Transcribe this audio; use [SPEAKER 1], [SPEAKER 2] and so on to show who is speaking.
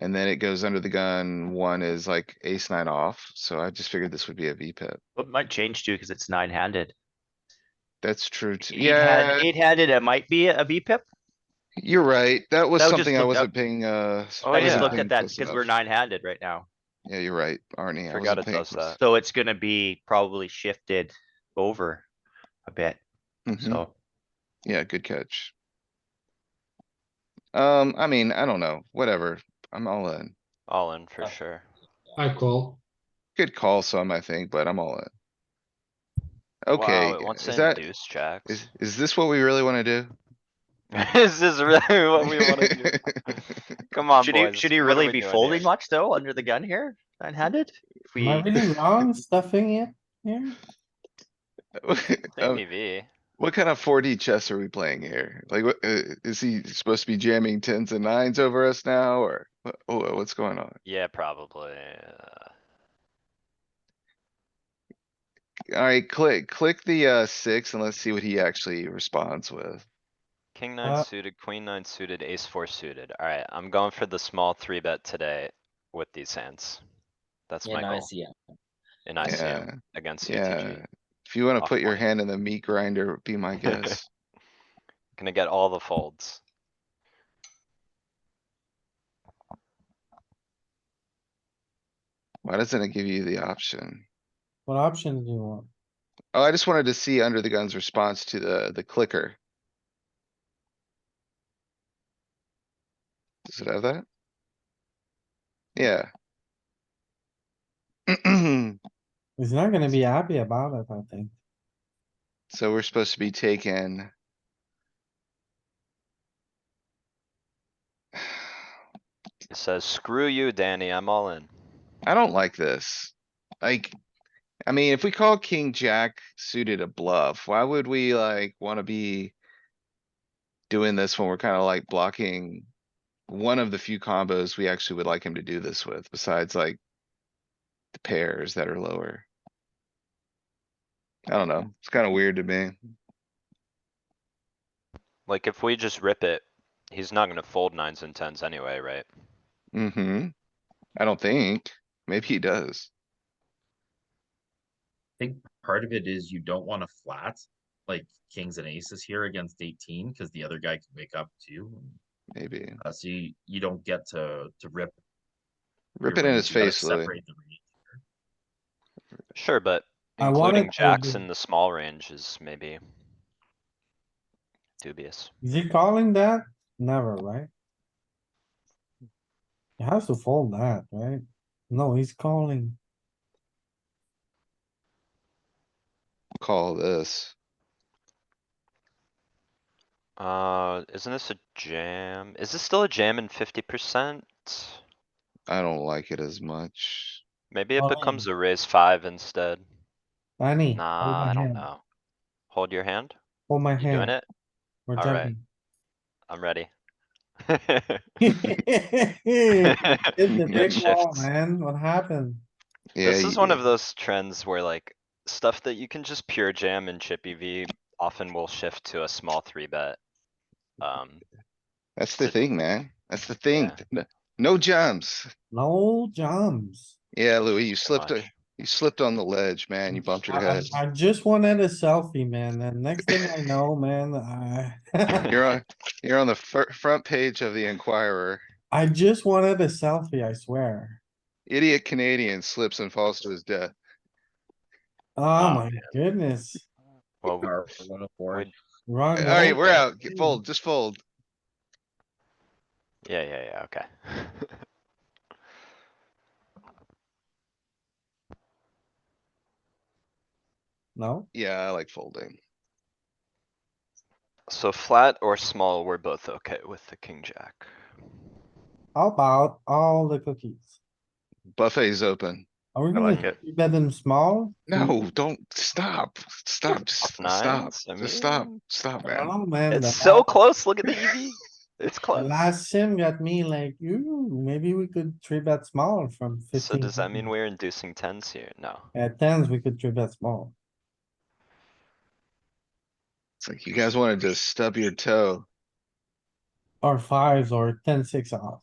[SPEAKER 1] And then it goes under the gun. One is like ace nine off, so I just figured this would be a V pip.
[SPEAKER 2] But it might change too, because it's nine handed.
[SPEAKER 1] That's true. too. Yeah,
[SPEAKER 2] Eight handed, it might be a B pip.
[SPEAKER 1] you're right. That was
[SPEAKER 2] That was just
[SPEAKER 1] something I
[SPEAKER 2] looked up.
[SPEAKER 1] wasn't paying, uh. s-
[SPEAKER 2] I just
[SPEAKER 1] wasn't
[SPEAKER 2] looked
[SPEAKER 1] paying
[SPEAKER 2] at that
[SPEAKER 1] close
[SPEAKER 2] because we're
[SPEAKER 1] enough.
[SPEAKER 2] nine handed right now.
[SPEAKER 1] Yeah, you're right, Arnie. I wasn't
[SPEAKER 3] Forgot it
[SPEAKER 1] paying
[SPEAKER 3] does
[SPEAKER 1] close-
[SPEAKER 2] So it's gonna be probably shifted over a bit,
[SPEAKER 1] Mhm.
[SPEAKER 2] so.
[SPEAKER 1] Yeah, good catch. Um, I mean, I don't know, whatever. I'm all in.
[SPEAKER 3] All in for
[SPEAKER 4] Uh,
[SPEAKER 3] sure.
[SPEAKER 4] I call.
[SPEAKER 1] Good call some, I think, but I'm all in.
[SPEAKER 3] Wow,
[SPEAKER 1] Okay,
[SPEAKER 3] it wants
[SPEAKER 1] is
[SPEAKER 3] to
[SPEAKER 1] that,
[SPEAKER 3] induce jacks.
[SPEAKER 1] is, is this what we really wanna do?
[SPEAKER 3] Is this really what we wanna do? Come on,
[SPEAKER 2] Should he,
[SPEAKER 3] boys.
[SPEAKER 2] should he
[SPEAKER 3] what are
[SPEAKER 2] really
[SPEAKER 3] we
[SPEAKER 2] be
[SPEAKER 3] doing
[SPEAKER 2] folding
[SPEAKER 3] here?
[SPEAKER 2] much though, under the gun here, nine handed? If
[SPEAKER 4] Am I
[SPEAKER 2] we,
[SPEAKER 4] really wrong stuffing it here?
[SPEAKER 3] Oh.
[SPEAKER 1] Um,
[SPEAKER 3] ABV.
[SPEAKER 1] What kind of four D chess are we playing here? Like, what, uh, is he supposed to be jamming tens and nines over us now, or what, oh, what's going on?
[SPEAKER 3] Yeah, probably. uh,
[SPEAKER 1] Alright, click, click the, uh, six and let's see what he actually responds with.
[SPEAKER 3] King
[SPEAKER 4] Uh,
[SPEAKER 3] nine suited, queen nine suited, ace four suited. Alright, I'm going for the small three bet today with these hands. That's
[SPEAKER 5] in
[SPEAKER 3] my goal
[SPEAKER 5] ICM.
[SPEAKER 3] in ICM
[SPEAKER 1] Yeah,
[SPEAKER 3] against
[SPEAKER 1] yeah.
[SPEAKER 3] UTG.
[SPEAKER 1] If you wanna
[SPEAKER 3] Off
[SPEAKER 1] put your
[SPEAKER 3] point.
[SPEAKER 1] hand in the meat grinder, be my guest.
[SPEAKER 3] Gonna get all the folds.
[SPEAKER 1] Why doesn't it give you the option?
[SPEAKER 4] What option do you want?
[SPEAKER 1] Oh, I just wanted to see under the gun's response to the, the clicker. Does it have that? Yeah.
[SPEAKER 4] He's not gonna be happy about it, I think.
[SPEAKER 1] So we're supposed to be taken.
[SPEAKER 3] It says, screw you, Danny, I'm all in.
[SPEAKER 1] I don't like this. Like, I mean, if we call king jack suited a bluff, why would we like wanna be? Doing this when we're kinda like blocking one of the few combos we actually would like him to do this with, besides like. The pairs that are lower. I don't know, it's kinda weird to me.
[SPEAKER 3] Like, if we just rip it, he's not gonna fold nines and tens anyway, right?
[SPEAKER 1] Mm-hmm. I don't think, maybe he does.
[SPEAKER 6] think part of it is you don't wanna flat, like kings and aces here against eighteen, cause the other guy can wake up too. and,
[SPEAKER 1] Maybe.
[SPEAKER 6] Uh, so you, you don't get to, to rip. your
[SPEAKER 1] Rip it in
[SPEAKER 6] range,
[SPEAKER 1] his
[SPEAKER 6] you gotta
[SPEAKER 1] face, Louis.
[SPEAKER 6] separate the range.
[SPEAKER 3] Sure, but
[SPEAKER 4] I wanted
[SPEAKER 3] including
[SPEAKER 4] to
[SPEAKER 3] jacks
[SPEAKER 4] do-
[SPEAKER 3] in the small range is maybe dubious.
[SPEAKER 4] Is he calling that? Never, right? He has to fold that, right? No, he's calling.
[SPEAKER 1] Call this.
[SPEAKER 3] Uh, isn't this a jam? Is this still a jam in fifty percent?
[SPEAKER 1] I don't like it as much.
[SPEAKER 3] Maybe it
[SPEAKER 4] Oh.
[SPEAKER 3] becomes a raise five instead.
[SPEAKER 4] Danny. hold
[SPEAKER 3] Nah,
[SPEAKER 4] my
[SPEAKER 3] I don't
[SPEAKER 4] hand.
[SPEAKER 3] know. Hold your hand?
[SPEAKER 4] Hold my
[SPEAKER 3] You doing
[SPEAKER 4] hand.
[SPEAKER 3] it?
[SPEAKER 4] We're
[SPEAKER 3] All right. I'm ready.
[SPEAKER 4] jumping. Hit the
[SPEAKER 1] It
[SPEAKER 4] big wall,
[SPEAKER 3] shifts.
[SPEAKER 4] man. What happened?
[SPEAKER 1] Yeah,
[SPEAKER 3] This is
[SPEAKER 1] you-
[SPEAKER 3] one of those trends where like stuff that you can just pure jam in chippy V often will shift to a small three bet. Um,
[SPEAKER 1] That's the
[SPEAKER 3] it's a-
[SPEAKER 1] thing, man. That's the thing.
[SPEAKER 3] Yeah.
[SPEAKER 1] No- No jumps.
[SPEAKER 4] No jumps.
[SPEAKER 1] Yeah, Louis, you
[SPEAKER 3] too
[SPEAKER 1] slipped, a-
[SPEAKER 3] much.
[SPEAKER 1] you slipped on the ledge, man. You bumped your
[SPEAKER 4] I- I-
[SPEAKER 1] head.
[SPEAKER 4] I just wanted a selfie, man, and next thing I know, man, I,
[SPEAKER 1] You're on, you're on the fir- front page of the Enquirer.
[SPEAKER 4] I just wanted a selfie, I swear.
[SPEAKER 1] Idiot Canadian slips and falls to his death.
[SPEAKER 4] Oh
[SPEAKER 3] Oh,
[SPEAKER 4] my goodness,
[SPEAKER 3] Well, we-
[SPEAKER 6] Or one of four.
[SPEAKER 3] Oh,
[SPEAKER 4] wrong.
[SPEAKER 1] Alright,
[SPEAKER 4] goal.
[SPEAKER 1] we're out. Get- Fold, just fold.
[SPEAKER 3] yeah, yeah, yeah, okay.
[SPEAKER 4] No,
[SPEAKER 1] Yeah, I like folding.
[SPEAKER 3] So flat or small, we're both okay with the king jack.
[SPEAKER 4] how about all the cookies?
[SPEAKER 1] Buffet's open.
[SPEAKER 4] Are we
[SPEAKER 3] I like
[SPEAKER 4] gonna
[SPEAKER 3] it.
[SPEAKER 4] bet them small?
[SPEAKER 3] Mm.
[SPEAKER 1] No, don't, stop, stop, just
[SPEAKER 3] Off
[SPEAKER 1] stop,
[SPEAKER 3] Hmm. nines, I
[SPEAKER 1] just stop,
[SPEAKER 3] mean.
[SPEAKER 1] stop, man.
[SPEAKER 4] Oh, man. the
[SPEAKER 3] It's so
[SPEAKER 4] last-
[SPEAKER 3] close, look at
[SPEAKER 2] E
[SPEAKER 3] the EV. It's
[SPEAKER 4] The
[SPEAKER 3] close.
[SPEAKER 4] last sim got me like, ooh, maybe we could three bet small from fifteen.
[SPEAKER 3] So does that mean we're inducing tens here? No.
[SPEAKER 4] At tens, we could three bet small.
[SPEAKER 1] It's like, you guys wanna just stub your toe.
[SPEAKER 4] Or fives or ten, six off.